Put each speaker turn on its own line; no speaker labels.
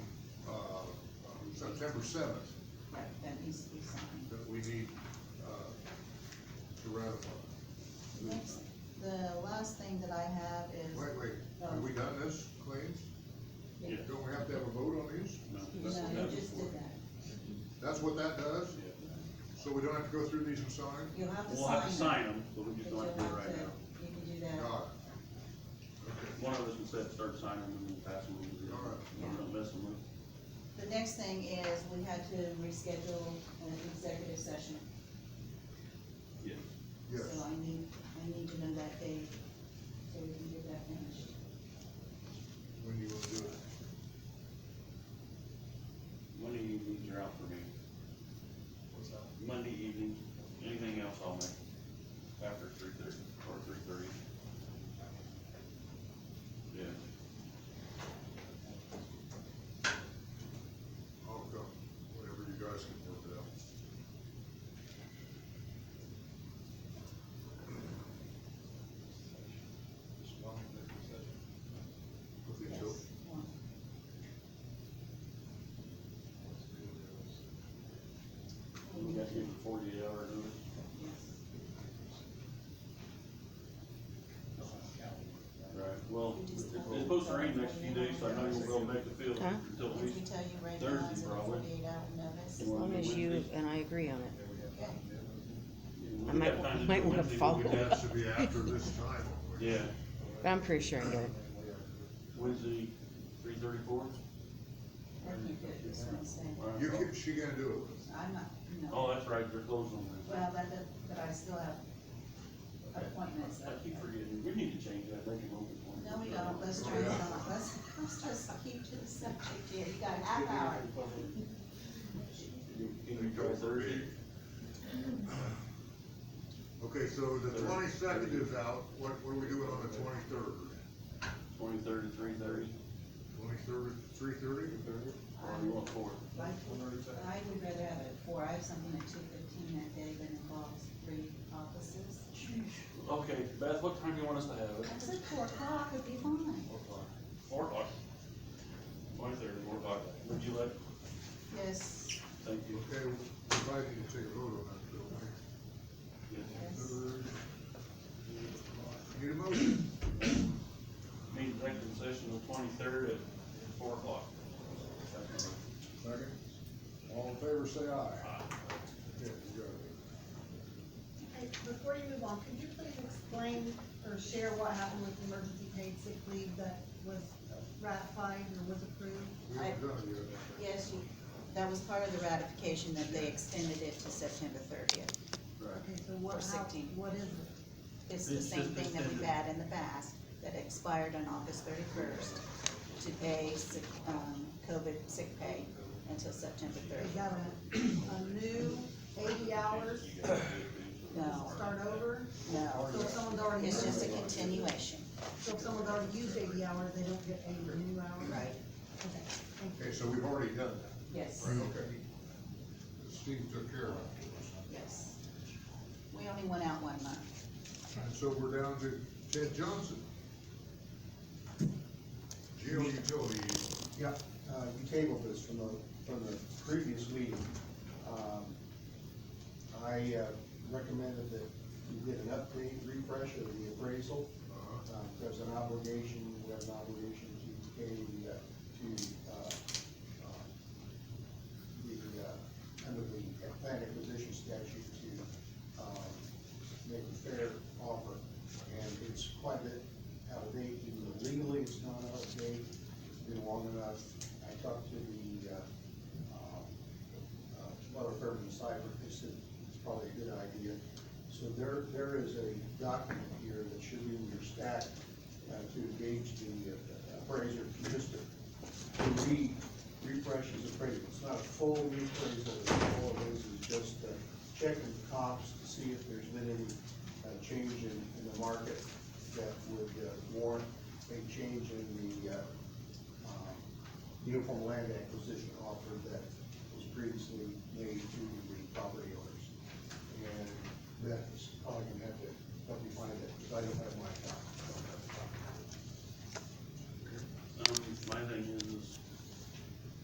uh, September seventh,
Right, that needs to be signed.
that we need, uh, to ratify.
Next, the last thing that I have is.
Wait, wait, have we done this, claims?
Yeah.
Don't we have to have a vote on these?
No,
That's what
you
that
just
was
did that.
That's what that does?
Yeah.
So we don't have to go through these and sign?
You'll have to sign.
We'll have to
it,
sign them, but we
but
just
you'll
don't have to do it right
have to-
now.
You can do that.
God.
One of us can set, start signing them and pass them over to the other. We're gonna mess them up.
The next thing is, we had to reschedule an executive session.
Yes.
Yes,
So I need, I need to know that date, so we can get that finished.
when you will do it.
Monday evenings are out for me.
What's that?
Monday evening, anything else I'll make after three thirty, or three thirty. Yeah,
I'll come, whatever you guys can work it out.
Just one executive session.
I think
Yes.
so.
one.
Let's do this.
we got to give a forty-eight hour notice.
Yes.
Right, well, it's supposed to rain next few days, so I know you'll be able to make the field
Huh?
until
Let
we,
me tell you right now, it's
Thursday,
a
probably.
forty-eight hour notice.
As
As long as you
Wednesday.
and I agree on it.
Then we have time to do it.
we
I might-
got time to do
might
it
wanna
Wednesday, but
follow
we'd
It
have-
has to be after this time.
Yeah,
But I'm pretty sure I get it.
And we are good.
Wednesday, three thirty-four?
I can't do it this Wednesday.
You can, she gonna do it.
I'm not, no,
Oh, that's right, they're closed on Wednesday.
well, but, the- but I still have appointments. that-
I keep forgetting, we need to change that, make it open. for
No, we don't, let's try it on, let's, let's just keep to the subject here, you got a half hour.
You- Can you go Thursday?
Okay, so the twenty-second is out, what, what are we doing on the twenty-third?
Twenty-third and three thirty?
Twenty-third, three-thirty?
Or you want four?
I I would rather have it at four, I have something at two fifteen that day that involves three offices.
Okay, Beth, what time do you want us to have it?
I said four o'clock would be fine.
Four o'clock. Four o'clock. Twenty-third, four o'clock. Would you like,
Yes,
thank you.
Okay, we might need to take a vote on that, don't we?
yes.
Need a motion?
Meeting executive session the twenty-third at four o'clock.
Second. All in favor, say aye.
Aye.
Okay, you got it.
Hey, Before you move on, could you please explain or share what happened with the emergency paid sick leave that was ratified or was approved?
We haven't done it yet.
Yes, you, that was part of the ratification that they extended it to September thirtieth.
Right.
Okay, so what,
For
how,
16.
what is it?
It's the
It's
same
just
thing that we've
extended.
had in the past, that expired on August thirty-first to pay sick, um, COVID sick pay until September
Is
thirtieth.
that a, a new eighty hours,
No,
start over?
no,
So if someone's already,
it's just a
so
continuation,
if someone's already used eighty hours, they don't get eighty new hours?
right?
Okay, thank you.
Okay, so we've already done that.
Yes,
Right, okay. Steve took care of it.
yes. We only went out one month.
And so we're down to Ted Johnson. Geo utility,
Yeah, uh, you tabled this from the, from the previous meeting. Um, I uh, recommended that you get an update, refresh of the appraisal.
uh,
Um, There's an obligation, we have an obligation to pay the, uh, to, uh, uh, the, uh, under the land acquisition statute to, um, make a fair offer. And it's quite a bit out of date, even though legally it's not out of date, it's been long enough. I talked to the, uh, um, uh, Butler Fairman Cyber, they said it's probably a good idea. So there, there is a document here that should be in your stack, uh, to engage the uh, appraiser, just to re, refresh his appraisal. It's not a full reappraisal, all it is is just uh, checking the comps to see if there's been any uh, change in, in the market that would uh, warrant a change in the, uh, um, uniform land acquisition offer that was previously made to the property owners. And that is probably gonna have to help you find it, because I don't have my copy. I don't have a copy.
Um, my thing is, is